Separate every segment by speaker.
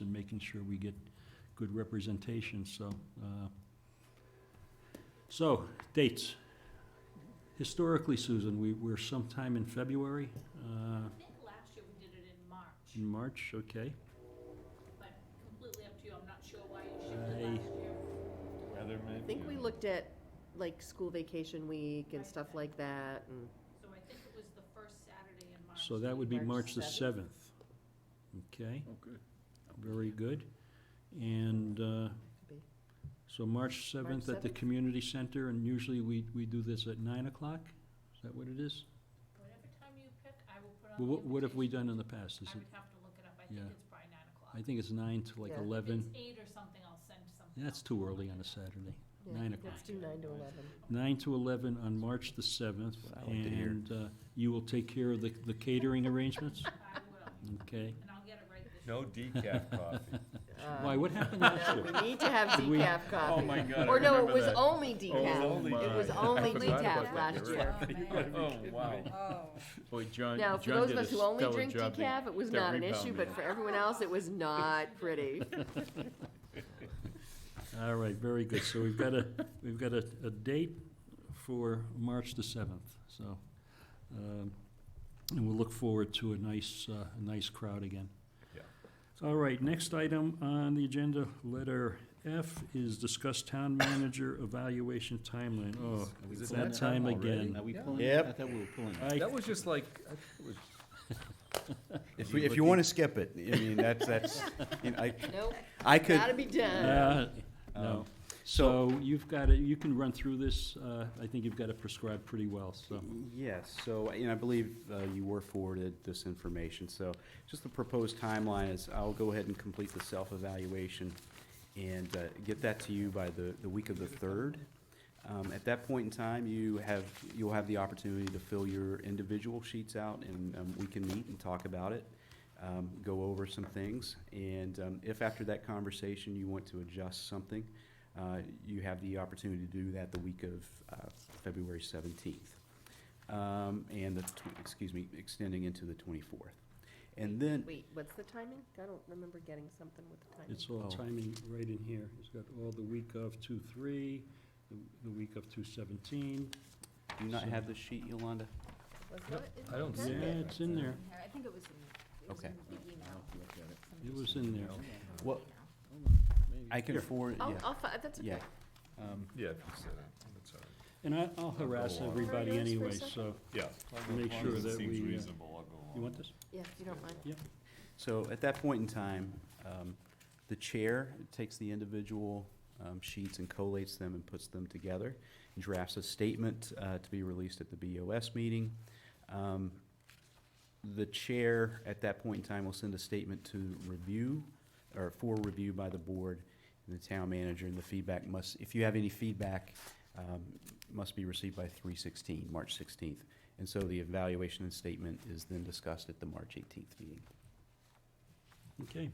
Speaker 1: and making sure we get good representation, so. uh, So, dates. Historically, Susan, we, we're sometime in February, uh,
Speaker 2: I think last year we did it in March,
Speaker 1: in March, okay?
Speaker 2: but completely up to you, I'm not sure why you shifted last year.
Speaker 3: Weather maybe?
Speaker 4: I think we looked at, like, school vacation week and stuff like that, and,
Speaker 2: So I think it was the first Saturday in March.
Speaker 1: So that would be March
Speaker 4: March
Speaker 1: the seventh. Okay,
Speaker 3: Oh, good.
Speaker 1: very good. And, uh,
Speaker 4: Could be.
Speaker 1: so March seventh at the
Speaker 4: 7th.
Speaker 1: community center, and usually we, we do this at nine o'clock? Is that what it is?
Speaker 2: Whatever time you pick, I will put on the
Speaker 1: Well, What, what have we
Speaker 2: invitation.
Speaker 1: done in the past? Is
Speaker 2: I
Speaker 1: it,
Speaker 2: would have to look it up, I
Speaker 1: Yeah.
Speaker 2: think it's probably nine o'clock.
Speaker 1: I think it's nine to like
Speaker 4: Yeah.
Speaker 1: eleven.
Speaker 2: If it's eight or something, I'll send something.
Speaker 1: That's
Speaker 2: out.
Speaker 1: too early on a Saturday.
Speaker 4: yeah,
Speaker 1: Nine
Speaker 4: let's
Speaker 1: o'clock.
Speaker 4: do nine to eleven.
Speaker 1: Nine to eleven on March the seventh,
Speaker 3: What I like to hear.
Speaker 1: and uh, you will take care of the the catering arrangements?
Speaker 2: I will,
Speaker 1: Okay.
Speaker 2: and I'll get it right this year.
Speaker 3: No decaf coffee.
Speaker 4: Uh,
Speaker 1: Why, what happened
Speaker 4: no,
Speaker 1: last year?
Speaker 4: We need to have
Speaker 1: Did we-
Speaker 4: decaf
Speaker 3: Oh,
Speaker 4: coffee.
Speaker 3: my God. I
Speaker 4: Or no, it
Speaker 3: remember
Speaker 4: was
Speaker 3: that.
Speaker 4: only
Speaker 3: Oh, it was
Speaker 4: decaf.
Speaker 3: only
Speaker 4: It was
Speaker 3: decaf.
Speaker 4: only
Speaker 3: I forgot about
Speaker 4: decaf
Speaker 3: that.
Speaker 4: last
Speaker 3: You're
Speaker 4: year.
Speaker 3: right. You gotta be kidding me.
Speaker 5: Oh,
Speaker 3: Boy, John,
Speaker 4: Now, for
Speaker 3: John
Speaker 4: those
Speaker 3: did
Speaker 4: of
Speaker 3: a
Speaker 4: us who only
Speaker 3: stellar
Speaker 4: drink
Speaker 3: job to-
Speaker 4: decaf, it was
Speaker 3: to
Speaker 4: not an
Speaker 3: rebound
Speaker 4: issue, but
Speaker 3: that.
Speaker 4: for everyone else, it was not pretty.
Speaker 1: All right, very good. So we've got a, we've got a, a date for March the seventh, so. um, And we'll look forward to a nice, uh, a nice crowd again.
Speaker 3: Yeah.
Speaker 1: All right, next item on the agenda, letter F, is discuss town manager evaluation timeline. Oh,
Speaker 3: Is
Speaker 1: it's
Speaker 3: this
Speaker 1: that
Speaker 3: that
Speaker 1: time
Speaker 3: time
Speaker 1: again.
Speaker 6: Are we
Speaker 3: Yeah.
Speaker 6: pulling?
Speaker 5: Yep.
Speaker 6: I thought we were pulling.
Speaker 1: I,
Speaker 3: That was just like, I think it was-
Speaker 5: if, we- if you want to skip it, I mean, that's, that's, you know, I,
Speaker 4: Nope,
Speaker 5: I could,
Speaker 4: gotta be done.
Speaker 1: uh, no. So you've got it, you can run through this. uh, I think you've got it prescribed pretty well, so.
Speaker 6: yes, so, and I believe uh, you were forwarded this information, so just the proposed timeline is I'll go ahead and complete the self-evaluation and uh, get that to you by the, the week of the third. Um, At that point in time, you have, you'll have the opportunity to fill your individual sheets out and um, we can meet and talk about it, um, go over some things. And um, if after that conversation you want to adjust something, uh, you have the opportunity to do that the week of uh, February seventeenth. um, And the, tw- excuse me, extending into the twenty-fourth. And then,
Speaker 4: Wait, what's the timing? I don't remember getting something with the timing.
Speaker 1: It's all
Speaker 6: Oh.
Speaker 1: timing right in here. It's got all the week of two, three, the, the week of two seventeen.
Speaker 6: do you not have the sheet, Yolanda?
Speaker 4: Was
Speaker 1: Yep,
Speaker 4: it- is
Speaker 3: I
Speaker 4: it
Speaker 3: don't
Speaker 1: Yeah,
Speaker 4: done?
Speaker 3: see it.
Speaker 1: it's in there.
Speaker 5: I think it was in, it was
Speaker 6: Okay.
Speaker 5: in the email.
Speaker 1: It was in there.
Speaker 6: Well, I can forward,
Speaker 4: I'll,
Speaker 6: yeah.
Speaker 4: I'll, fi- that's okay.
Speaker 6: Yeah. Um,
Speaker 3: Yeah, that's it. That's all right.
Speaker 1: And I, I'll harass
Speaker 3: Go on.
Speaker 1: everybody
Speaker 4: Can I use this for a
Speaker 1: anyway, so
Speaker 4: second?
Speaker 3: Yeah.
Speaker 1: make
Speaker 3: As long
Speaker 1: sure
Speaker 3: as it
Speaker 1: that
Speaker 3: seems
Speaker 1: we, uh,
Speaker 3: reasonable, I'll go
Speaker 1: you
Speaker 3: along.
Speaker 1: want this?
Speaker 4: Yeah, if you don't mind.
Speaker 6: So at that point in time, um, the chair takes the individual um, sheets and collates them and puts them together, drafts a statement uh, to be released at the BOS meeting. Um, The chair, at that point in time, will send a statement to review, or for review by the board and the town manager, and the feedback must, if you have any feedback, um, must be received by three sixteen, March sixteenth. And so the evaluation and statement is then discussed at the March eighteenth meeting.
Speaker 1: Okay.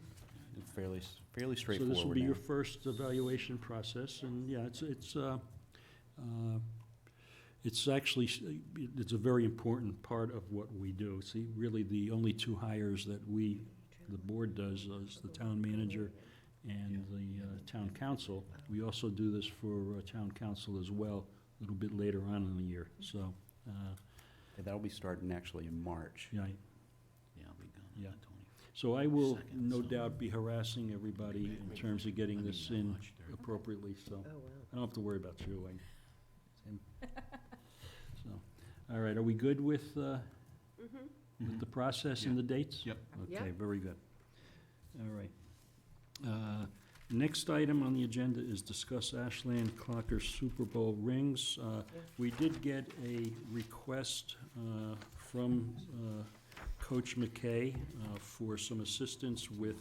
Speaker 6: Fairly, s- fairly
Speaker 1: So
Speaker 6: straightforward.
Speaker 1: this will be
Speaker 6: now.
Speaker 1: your first evaluation process, and yeah, it's, it's, uh, uh, it's actually, s- it's a very important part of what we do. See, really, the only two hires that we, the board does, is the town manager and the uh, town council. We also do this for uh, town council as well, a little bit later on in the year, so, uh,
Speaker 6: And That'll be starting actually in March.
Speaker 1: yeah. I-
Speaker 6: Yeah, I'll be gone
Speaker 1: on Yeah. the
Speaker 6: twenty.
Speaker 1: So I will,
Speaker 6: Second,
Speaker 1: no
Speaker 6: so-
Speaker 1: doubt, be harassing everybody in terms of getting this in appropriately, so.
Speaker 4: Oh, wow.
Speaker 1: I don't have to worry about you, I, it's him. So, all right, are we good with, uh,
Speaker 4: Mhm.
Speaker 1: with the process and the dates?
Speaker 6: Yep.
Speaker 1: Okay,
Speaker 4: Yeah.
Speaker 1: very good. All right. Uh, Next item on the agenda is discuss Ashland Clocker Super Bowl rings. Uh, We did get a request uh, from uh, Coach McKay uh, for some assistance with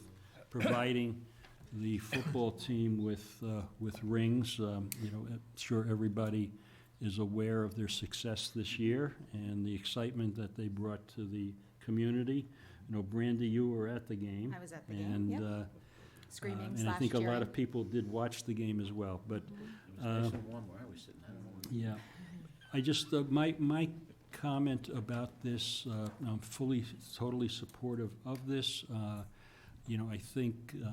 Speaker 1: providing the football team with, uh, with rings. Um, You know, I'm sure everybody is aware of their success this year and the excitement that they brought to the community. You know, Brandy, you were at the game.
Speaker 5: I was at the game,
Speaker 1: And,
Speaker 5: yep.
Speaker 1: uh, uh,
Speaker 5: Screaming
Speaker 1: And I
Speaker 5: slash
Speaker 1: think a lot
Speaker 5: cheering. Mm-hmm.
Speaker 1: of people did watch the game as well, but, uh,
Speaker 6: It was nice and warm where I was sitting. I don't know.
Speaker 1: yeah. I just, uh, my, my comment about this, uh, I'm fully, totally supportive of this. Uh, you know, I think, uh,